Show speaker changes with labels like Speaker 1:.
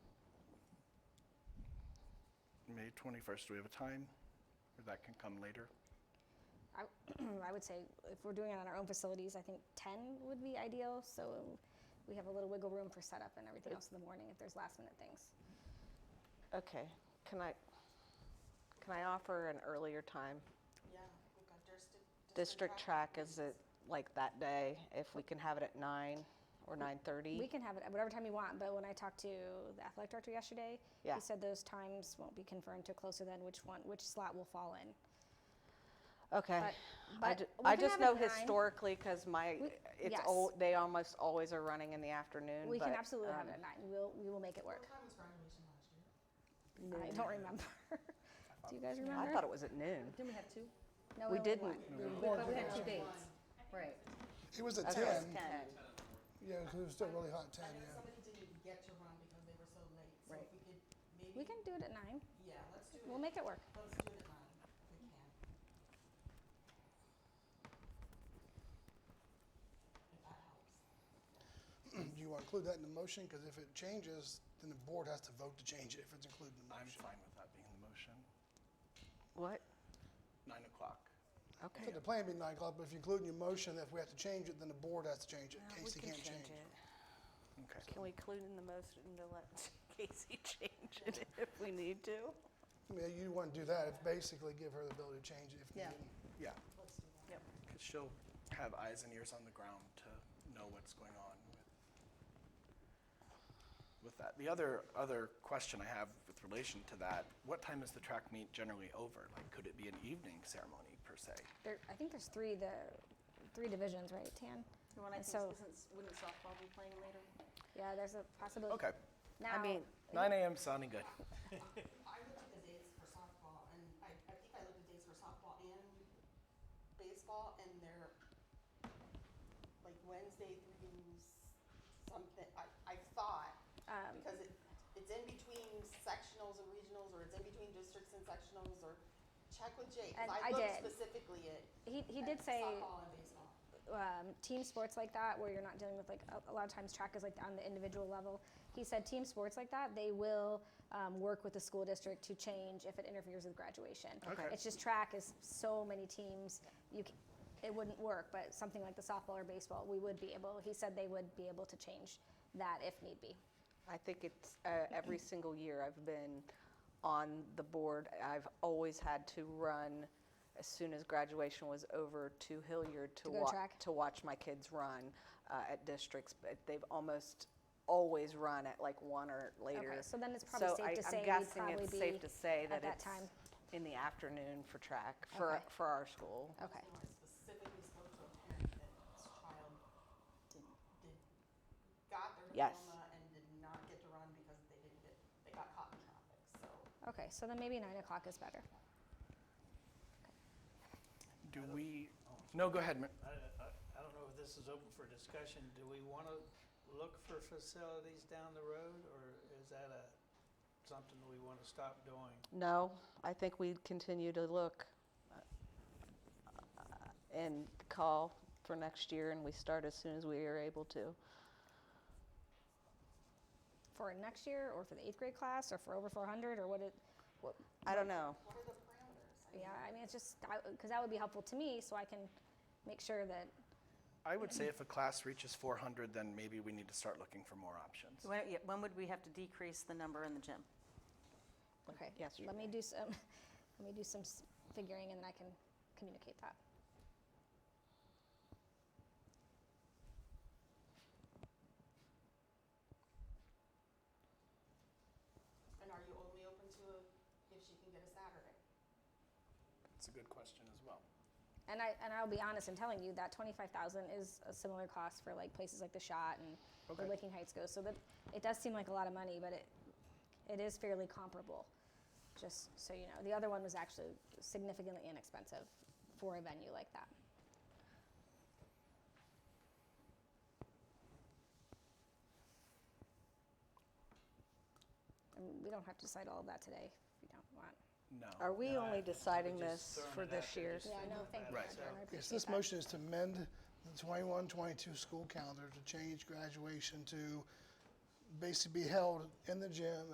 Speaker 1: May 21st, do we have a time? Or that can come later?
Speaker 2: I, I would say if we're doing it on our own facilities, I think 10 would be ideal. So we have a little wiggle room for setup and everything else in the morning if there's last minute things.
Speaker 3: Okay, can I, can I offer an earlier time?
Speaker 4: Yeah, we've got district.
Speaker 3: District track, is it like that day, if we can have it at nine or
Speaker 2: We
Speaker 3: 9:30?
Speaker 2: can have it at whatever time you want, but when I talked to the athletic director yesterday,
Speaker 3: Yeah.
Speaker 2: he said those times won't be confirmed till closer than which one, which slot will fall in.
Speaker 3: Okay.
Speaker 2: but-
Speaker 3: I
Speaker 2: but
Speaker 3: ju-
Speaker 2: we
Speaker 3: I
Speaker 2: can
Speaker 3: just
Speaker 2: have it
Speaker 3: know
Speaker 2: at nine.
Speaker 3: historically, because my,
Speaker 2: We-
Speaker 3: it's,
Speaker 2: yes.
Speaker 3: al- they almost always are running in the afternoon.
Speaker 2: We can
Speaker 3: but,
Speaker 2: absolutely have it at
Speaker 3: um,
Speaker 2: nine. We'll, we will make it
Speaker 4: What
Speaker 2: work.
Speaker 4: time was graduation last
Speaker 2: I
Speaker 4: year?
Speaker 2: don't remember. Do you guys remember?
Speaker 3: I thought it was at noon.
Speaker 5: Didn't we have two?
Speaker 2: no,
Speaker 3: we
Speaker 2: only
Speaker 3: didn't.
Speaker 2: one.
Speaker 5: But we had two dates. Right.
Speaker 6: It was a
Speaker 3: Okay.
Speaker 6: 10. Yeah, 'cause it was still really hot 10,
Speaker 4: I know
Speaker 6: yeah.
Speaker 4: somebody didn't even get to run because they were so late, so if
Speaker 5: Right.
Speaker 4: we could maybe.
Speaker 2: We can do it at nine.
Speaker 4: Yeah, let's do it.
Speaker 2: We'll make it work.
Speaker 4: Let's do it at nine, if we can. If that helps.
Speaker 6: Do you want to include that in the motion? Because if it changes, then the board has to vote to change it if it's included in the
Speaker 1: I'm
Speaker 6: motion.
Speaker 1: fine with that being the motion.
Speaker 3: What?
Speaker 1: 9 o'clock.
Speaker 3: Okay.
Speaker 6: So the plan would be 9 o'clock, but if you include in your motion that if we have to change it, then the board has to change it. Casey can't change it.
Speaker 1: Okay.
Speaker 3: Can we include in the motion to let Casey change it if we need to?
Speaker 6: I mean, you want to do that, it's basically give her the ability to change it if
Speaker 5: Yeah.
Speaker 6: needed.
Speaker 1: Yeah,
Speaker 3: Yep.
Speaker 1: because she'll have eyes and ears on the ground to know what's going on with, with that. The other, other question I have with relation to that, what time is the track meet generally over? Like, could it be an evening ceremony per se?
Speaker 2: There, I think there's three the three divisions, right, Tan?
Speaker 5: The one I
Speaker 2: And
Speaker 5: think,
Speaker 2: so
Speaker 5: isn't- wouldn't softball be playing later?
Speaker 2: yeah, there's a possibility.
Speaker 1: Okay,
Speaker 2: Now,
Speaker 3: mean-
Speaker 1: 9 AM sounding good.
Speaker 4: I looked at the dates for softball, and I, I think I looked at dates for softball and baseball, and they're like Wednesday through s- something, I, I thought,
Speaker 2: Um,
Speaker 4: because it, it's in between sectionals and regionals, or it's in between districts and sectionals, or check with Jake,
Speaker 2: And
Speaker 4: 'cause
Speaker 2: I
Speaker 4: I looked
Speaker 2: did.
Speaker 4: specifically at.
Speaker 2: he, he
Speaker 4: at
Speaker 2: did say
Speaker 4: Softball and baseball.
Speaker 2: um, team sports like that, where you're not dealing with like a, a lot of times track is like on the individual level. He said team sports like that, they will um, work with the school district to change if it interferes with graduation.
Speaker 1: Okay.
Speaker 2: It's just track is so many teams, you c it wouldn't work. But something like the softball or baseball, we would be able. He said they would be able to change that if need be.
Speaker 3: I think it's, uh, every single year I've been on the board, I've always had to run as soon as graduation was over to Hilliard to
Speaker 2: To go
Speaker 3: wa-
Speaker 2: track?
Speaker 3: to watch my kids run uh, at districts, but they've almost always run at like one or later.
Speaker 2: so then it's probably
Speaker 3: So
Speaker 2: safe
Speaker 3: I-
Speaker 2: to say
Speaker 3: I'm
Speaker 2: we'd
Speaker 3: guessing
Speaker 2: probably
Speaker 3: it's safe
Speaker 2: be
Speaker 3: to say
Speaker 2: at
Speaker 3: that
Speaker 2: that
Speaker 3: it's
Speaker 2: time.
Speaker 3: in the afternoon for track, for,
Speaker 2: Okay.
Speaker 3: for our school.
Speaker 2: Okay.
Speaker 4: I specifically spoke to a parent that his child did, did, got their
Speaker 3: Yes.
Speaker 4: diploma and did not get to run because they didn't get, they got caught in traffic, so.
Speaker 2: Okay, so then maybe nine o'clock is better.
Speaker 1: Do we, no, go ahead, Ma-
Speaker 7: I, I- I don't know if this is open for discussion. Do we want to look for facilities down the road, or is that a, something we want to stop doing?
Speaker 3: No, I think we continue to look uh, and call for next year, and we start as soon as we are able to.
Speaker 2: For next year, or for the eighth grade class, or for over 400, or what it. What,
Speaker 3: I don't know.
Speaker 4: What are the parameters? I mean,
Speaker 2: yeah, I mean, it's just because that would be helpful to me, so I can make sure that.
Speaker 1: I would say if a class reaches 400, then maybe we need to start looking for more options.
Speaker 5: When, yeah, when would we have to decrease the number in the gym?
Speaker 2: Okay.
Speaker 3: Yes, you
Speaker 2: Let me do some. Let me do some s- figuring, and then I can communicate that.
Speaker 4: And are you only open to if she can get a Saturday?
Speaker 1: It's a good question as well.
Speaker 2: And I and I'll be honest in telling you that 25,000 is a similar cost for like places like the Shot and
Speaker 1: Okay.
Speaker 2: where Licking Heights goes. So that it does seem like a lot of money, but it it is fairly comparable. Just so you know, the other one was actually significantly inexpensive for a venue like that. And we don't have to decide all of that today if you don't want.
Speaker 1: No.
Speaker 3: Are we
Speaker 7: No, I-
Speaker 3: only
Speaker 7: I
Speaker 3: deciding
Speaker 7: was just
Speaker 3: this
Speaker 7: throwing
Speaker 3: for
Speaker 7: it out
Speaker 3: this
Speaker 7: there
Speaker 3: year?
Speaker 7: just
Speaker 2: Yeah, I
Speaker 7: thinking
Speaker 2: know. Thank
Speaker 7: about
Speaker 2: you.
Speaker 7: it.
Speaker 1: Right.
Speaker 7: So-
Speaker 2: Jen, I
Speaker 6: Yes,
Speaker 2: appreciate
Speaker 6: this
Speaker 2: that.
Speaker 6: motion is to amend the 21, 22 school calendar to change graduation to basically be held in the gym